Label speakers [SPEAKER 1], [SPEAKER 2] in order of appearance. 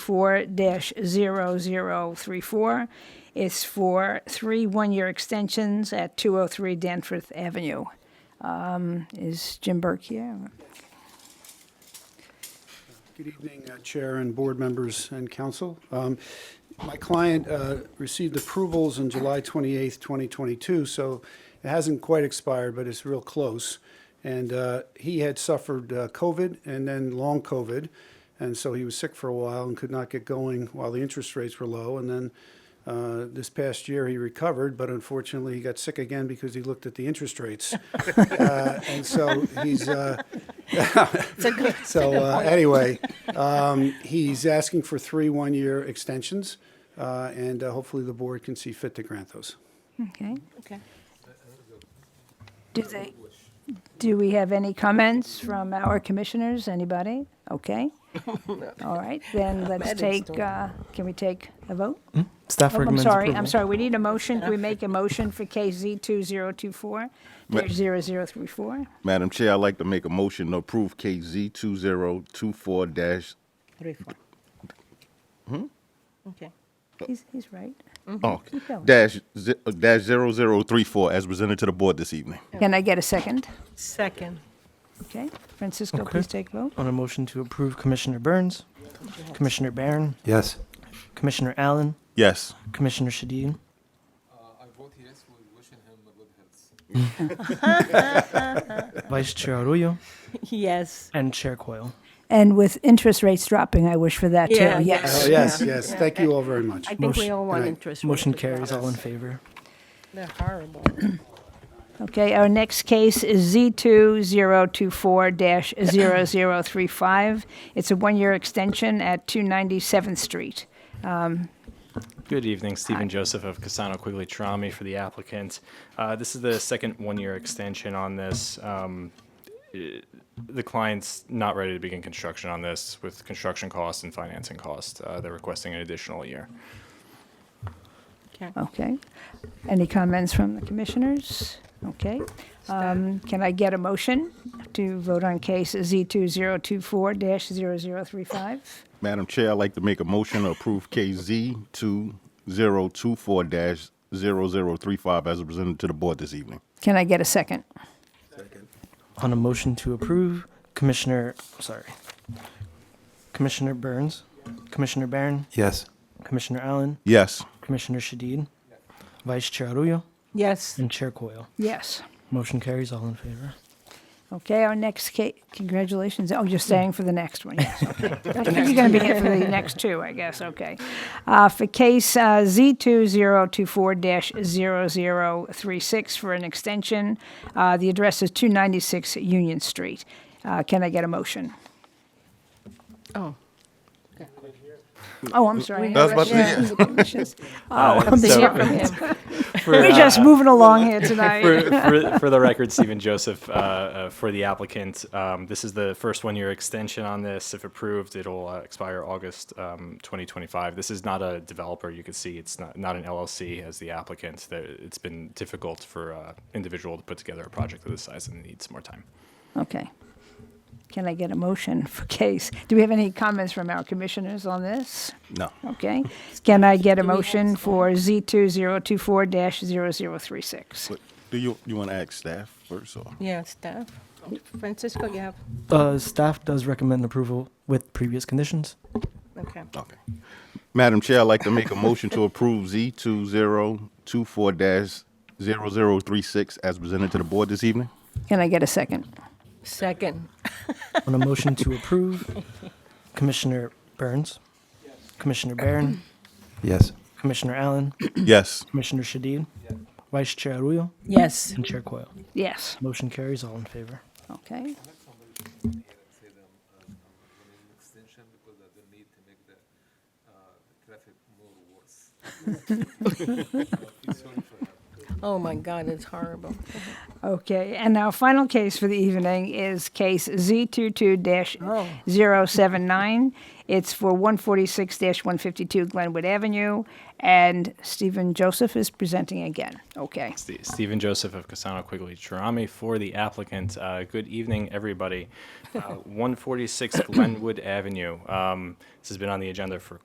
[SPEAKER 1] 4-0034. It's for three one-year extensions at 203 Danforth Avenue. Um, Is Jim Burke here?
[SPEAKER 2] Good evening, uh, Chair and Board members and council. Um, My client uh, received approvals on July 28th, 2022, so it hasn't quite expired, but it's real close. And uh, he had suffered uh, COVID and then long COVID, and so he was sick for a while and could not get going while the interest rates were low. And then uh, this past year, he recovered, but unfortunately, he got sick again because he looked at the interest rates. Uh, And so he's, uh, so uh, anyway, um, he's asking for three one-year extensions, uh, and uh, hopefully the board can see fit to grant those.
[SPEAKER 1] Okay.
[SPEAKER 3] Okay.
[SPEAKER 1] Do they, do we have any comments from our commissioners? Anybody? Okay. All right, then let's
[SPEAKER 3] Madam
[SPEAKER 1] take,
[SPEAKER 3] Storm.
[SPEAKER 1] uh, can we take a vote?
[SPEAKER 4] Staff
[SPEAKER 1] Oh, I'm
[SPEAKER 4] recommends
[SPEAKER 1] sorry, I'm
[SPEAKER 4] approval.
[SPEAKER 1] sorry, we need a motion, can we make a motion for KZ 2024-0034?
[SPEAKER 5] Madam Chair, I'd like to make a motion to approve KZ two zero two four dash,
[SPEAKER 3] Three, four. Okay.
[SPEAKER 1] He's, he's right.
[SPEAKER 5] oh,
[SPEAKER 1] going.
[SPEAKER 5] dash, ze- uh, dash zero zero three four as presented to the board this evening.
[SPEAKER 1] Can I get a second?
[SPEAKER 3] Second.
[SPEAKER 1] Okay, Francisco,
[SPEAKER 4] Okay.
[SPEAKER 1] please take vote.
[SPEAKER 4] On a motion to approve Commissioner Burns, Commissioner Barron,
[SPEAKER 6] Yes.
[SPEAKER 4] Commissioner Allen,
[SPEAKER 5] Yes.
[SPEAKER 4] Commissioner Shadid,
[SPEAKER 7] Uh, I vote yes, we wishing him a good health.
[SPEAKER 4] Vice Chair Arroyo,
[SPEAKER 3] Yes.
[SPEAKER 4] and Chair Coyle.
[SPEAKER 1] And with interest rates dropping, I wish for that too,
[SPEAKER 3] Yeah,
[SPEAKER 1] yes.
[SPEAKER 2] Oh, yes, yes, thank you all very much.
[SPEAKER 3] I think we
[SPEAKER 4] Motion-
[SPEAKER 3] all want
[SPEAKER 2] Aye.
[SPEAKER 3] interest.
[SPEAKER 4] Motion
[SPEAKER 3] rates to go
[SPEAKER 4] carries,
[SPEAKER 3] up.
[SPEAKER 4] all in favor.
[SPEAKER 3] They're horrible.
[SPEAKER 1] Okay, our next case is Z2024-0035. It's a one-year extension at 297th Street.
[SPEAKER 8] Good evening, Stephen Joseph of Casano Quigley Trami for the applicant. Uh, This is the second one-year extension on this. Um, eh, The client's not ready to begin construction on this with construction costs and financing costs. Uh, They're requesting an additional year.
[SPEAKER 3] Okay.
[SPEAKER 1] Okay. Any comments from the commissioners? Okay. Um, Can I get a motion to vote on case Z2024-0035?
[SPEAKER 5] Madam Chair, I'd like to make a motion to approve KZ two zero two four dash zero zero three five as presented to the board this evening.
[SPEAKER 1] Can I get a second?
[SPEAKER 4] On a motion to approve Commissioner, sorry, Commissioner Burns, Commissioner Barron,
[SPEAKER 6] Yes.
[SPEAKER 4] Commissioner Allen,
[SPEAKER 5] Yes.
[SPEAKER 4] Commissioner Shadid, Vice Chair Arroyo,
[SPEAKER 3] Yes.
[SPEAKER 4] and Chair Coyle.
[SPEAKER 1] Yes.
[SPEAKER 4] Motion carries, all in favor.
[SPEAKER 1] Okay, our next case, congratulations. Oh, you're staying for the next one, yes, okay. I think you're going to be here for the next two, I guess, okay. Uh, For case uh, Z2024-0036 for an extension, uh, the address is 296 Union Street. Uh, Can I get a motion?
[SPEAKER 3] Oh.
[SPEAKER 1] Oh, I'm sorry.
[SPEAKER 5] I was about to
[SPEAKER 1] Yeah. Oh,
[SPEAKER 3] Something
[SPEAKER 8] So-
[SPEAKER 3] here from him.
[SPEAKER 8] For,
[SPEAKER 1] we're
[SPEAKER 8] uh,
[SPEAKER 1] just moving along here tonight.
[SPEAKER 8] for, for, for the record, Stephen Joseph, uh, uh, for the applicant, um, this is the first one-year extension on this. If approved, it'll uh, expire August um, 2025. This is not a developer. You can see it's not, not an LLC as the applicant. There, it's been difficult for uh, individual to put together a project of this size and needs more time.
[SPEAKER 1] Okay. Can I get a motion for case? Do we have any comments from our commissioners on this?
[SPEAKER 5] No.
[SPEAKER 1] Okay. Can I get a
[SPEAKER 3] Do we have
[SPEAKER 1] motion
[SPEAKER 3] staff?
[SPEAKER 1] for Z2024-0036?
[SPEAKER 5] But Do you, you want to ask staff first or?
[SPEAKER 3] Yeah, staff. Francisco, you have,
[SPEAKER 4] Uh, staff does recommend approval with previous conditions.
[SPEAKER 3] okay.
[SPEAKER 4] Oh.
[SPEAKER 5] Okay. Madam Chair, I'd like to make a motion to approve Z two zero two four dash zero zero three six as presented to the board this evening.
[SPEAKER 1] Can I get a second?
[SPEAKER 3] Second.
[SPEAKER 4] On a motion to approve, Commissioner Burns, Commissioner Barron,
[SPEAKER 6] Yes.
[SPEAKER 4] Commissioner Allen,
[SPEAKER 5] Yes.
[SPEAKER 4] Commissioner Shadid, Vice Chair Arroyo,
[SPEAKER 3] Yes.
[SPEAKER 4] and Chair Coyle.
[SPEAKER 1] Yes.
[SPEAKER 4] Motion carries, all in favor.
[SPEAKER 1] Okay.
[SPEAKER 7] Say them, uh, an extension because I don't need to make the, uh, traffic more worse. I feel sorry for her.
[SPEAKER 3] Oh, my God, it's horrible.
[SPEAKER 1] Okay, and our final case for the evening is case Z22-079. It's for 146-152 Glenwood Avenue, and Stephen Joseph is presenting again. Okay.
[SPEAKER 8] Ste- Stephen Joseph of Casano Quigley Chirami for the applicant. Uh, Good evening, everybody. Uh, 146 Glenwood Avenue. Um, This has been on the agenda for